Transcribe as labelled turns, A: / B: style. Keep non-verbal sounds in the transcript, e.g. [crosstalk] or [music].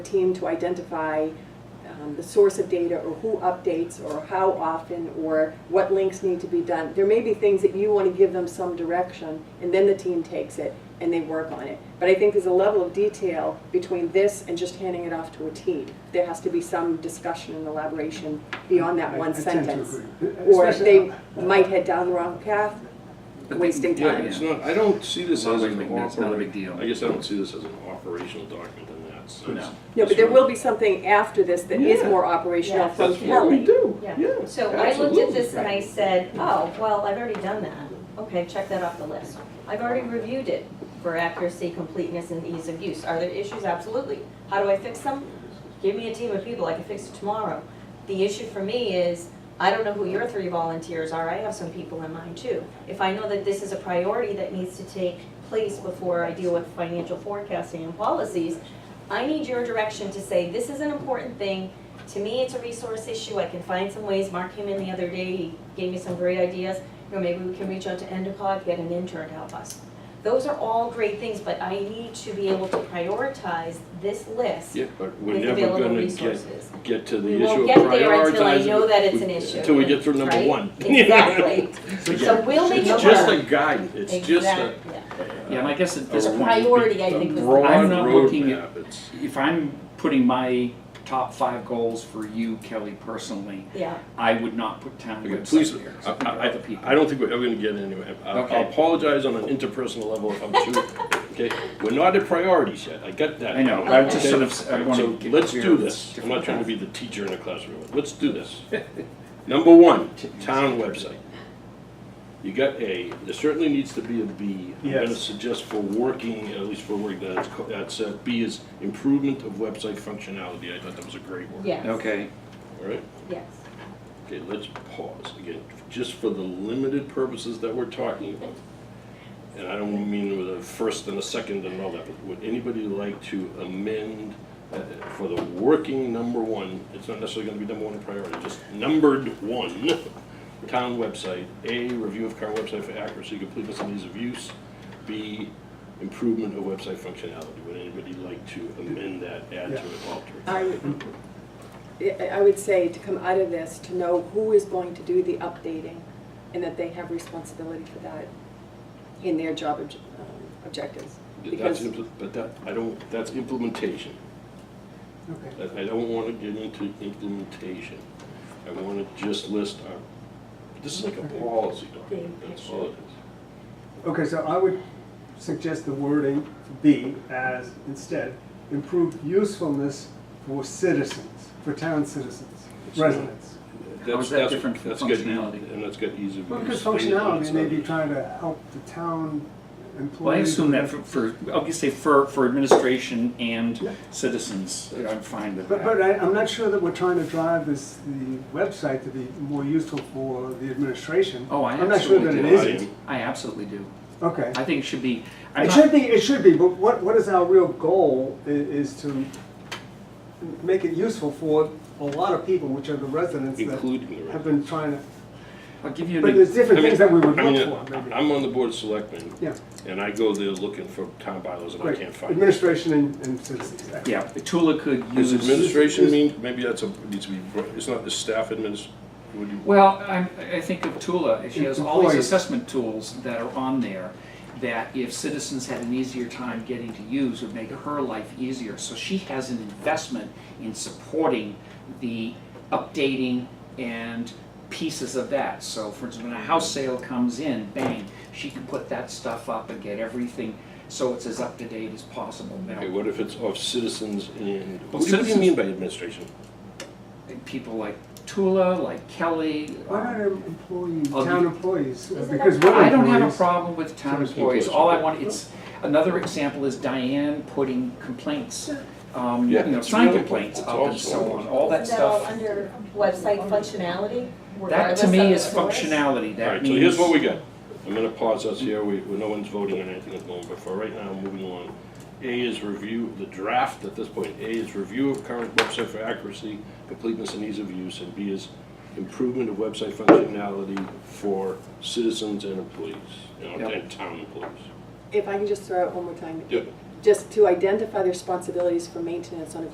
A: team to identify um, the source of data or who updates or how often or what links need to be done. There may be things that you want to give them some direction and then the team takes it and they work on it. But I think there's a level of detail between this and just handing it off to a team. There has to be some discussion and elaboration beyond that
B: I- I
A: one
B: tend to
A: sentence.
B: agree.
A: Or
B: Especially-
A: they might head down the wrong path, wasting
C: Yeah,
A: time.
C: it's not, I don't see this as an operating. I guess I don't see this as an operational document in that sense.
D: No.
A: No, but there will be something after this that is
C: Yeah.
A: more operational
E: Yeah.
A: from
C: That's what we
A: Kelly.
C: do,
E: Yeah.
C: yeah.
E: So I looked at this and
C: absolutely.
E: I said, oh, well, I've already done that. Okay, check that off the list. I've already reviewed it for accuracy, completeness, and ease of use. Are there issues? Absolutely. How do I fix them? Give me a team of people, I can fix it tomorrow. The issue for me is, I don't know who your three volunteers are, I have some people in mind too. If I know that this is a priority that needs to take place before I deal with financial forecasting and policies, I need your direction to say, this is an important thing, to me, it's a resource issue, I can find some ways, Mark came in the other day, he gave me some great ideas, you know, maybe we can reach out to Endicott, get an intern to help us. Those are all great things, but I need to be able to prioritize this list
C: Yeah, but we're
E: with
C: never
E: available
C: gonna get,
E: resources.
C: get to the
E: We
C: issue
E: won't
C: of prioritizing.
E: get there until I know that it's an
C: We-
E: issue.
C: Until we get through number
E: right?
C: one. [laughs]
E: Exactly. So we'll make it
C: It's just a
E: work.
C: guide, it's just a.
E: Exactly, yeah.
D: Yeah, and I guess at
E: It's
D: this
E: a
D: point,
E: priority, I
C: a
E: think, was the.
D: I'm
C: Broad
D: not looking
C: roadmap,
D: at-
C: it's,
D: if I'm putting my top five goals for you, Kelly, personally,
E: Yeah,
D: I would not put town
C: okay, please,
D: website here.
C: I, I,
D: Other people.
C: I- I don't think we're ever gonna get anywhere. I I
D: Okay.
C: apologize on an interpersonal level if I'm too, okay? We're not at priorities yet, I get that.
D: I know,
C: now,
D: I just
C: okay?
D: sort of, I wanna
C: So
D: get
C: let's
D: clear
C: do
D: on
C: this. I'm
D: different
C: not trying to
D: path.
C: be the teacher in a classroom. Let's do this. [laughs] Number one, t- town website. You got A, there certainly needs to be a B. I'm gonna
B: Yes.
C: suggest for working, at least for work, that's, co- that's, uh, B is improvement of website functionality. I thought that was a great word.
E: yes.
D: Okay,
C: All right?
E: Yes.
C: Okay, let's pause again, just for the limited purposes that we're talking about. And I don't mean with a first and a second and all that, but would anybody like to amend uh, for the working number one, it's not necessarily gonna be number one in priority, just numbered one, town website, A, review of current website for accuracy, completeness, and ease of use, B, improvement of website functionality. Would anybody like to amend that, add to it, alter it?
A: I would, I- I would say to come out of this, to know who is going to do the updating and that they have responsibility for that in their job obj- um, objectives.
C: That's,
A: Because,
C: impl- but that, I don't, that's implementation.
B: Okay.
C: I I don't want to get into implementation. I want to just list our, this is like a policy document, that's all it is.
B: Okay, so I would suggest the wording for B as instead, improve usefulness for citizens, for town citizens, residents.
D: How is that
C: That's-
D: different from
C: that's got e-
D: functionality?
C: And that's got ease of use.
B: Well, because
C: things like
B: functionality may be
C: that.
B: trying to help the town
D: well, I
B: employees.
D: assume that for, for, obviously for, for administration
B: Yeah.
D: and citizens, I'm fine with
B: But, but
D: that.
B: I, I'm not sure that we're trying to drive this, the website to be more useful for the administration.
D: Oh, I
B: I'm not sure that
D: absolutely
B: it
C: do. I
B: isn't.
D: I absolutely do.
B: Okay.
D: I think it should be, I'm
B: It
D: not-
B: should be, it should be, but what, what is our real goal i- is to make it useful for a lot of people, which are the residents that
C: Including the.
B: have been trying to,
D: I'll give you an.
B: but there's different
C: I mean,
B: things that we would
C: I mean,
B: look for, maybe.
C: I'm on the board of selectmen,
B: Yeah,
C: and I go there looking for town bylaws and I
B: great.
C: can't find them.
B: Administration and, and citizens. excellent.
D: Yeah, Tula could
C: Does
D: use,
C: administration mean, maybe that's a, needs to be, it's not the staff adminis, would you?
D: well, I, I think of Tula, she has all these
B: Employees.
D: assessment tools that are on there that if citizens had an easier time getting to use would make her life easier. So she has an investment in supporting the updating and pieces of that. So for instance, when a house sale comes in, bang, she can put that stuff up and get everything, so it's as up to date as possible
C: Okay,
D: now.
C: what if it's of citizens and,
D: Well,
C: what do you
D: citizens-
C: mean by administration?
D: And People like Tula, like Kelly.
B: Why not employee,
D: Of-
B: town employees,
E: Isn't
B: because
E: that-
B: we're
D: I don't have a
B: employees.
D: problem with town employees, all I want, it's, another example is Diane putting complaints, um, you
C: Yeah,
D: know,
C: it's
D: sign
C: really-
D: complaints
C: it's
D: up and
C: also-
D: so on, all that
E: Isn't that all
D: stuff.
E: under website functionality?
D: That
E: regardless
D: to
E: of
D: me
E: the
D: is
E: source?
D: functionality,
C: All
D: that
C: right, so
D: means,
C: here's what we got. I'm gonna pause us here, we, we- no one's voting on anything at the moment, but for right now, moving along. A is review, the draft at this point, A is review of current website for accuracy, completeness, and ease of use, and B is improvement of website functionality for citizens and employees, you know,
D: Yep.
C: and town employees.
A: if I can just throw out one more time,
C: Yeah.
A: just to identify the responsibilities for maintenance on a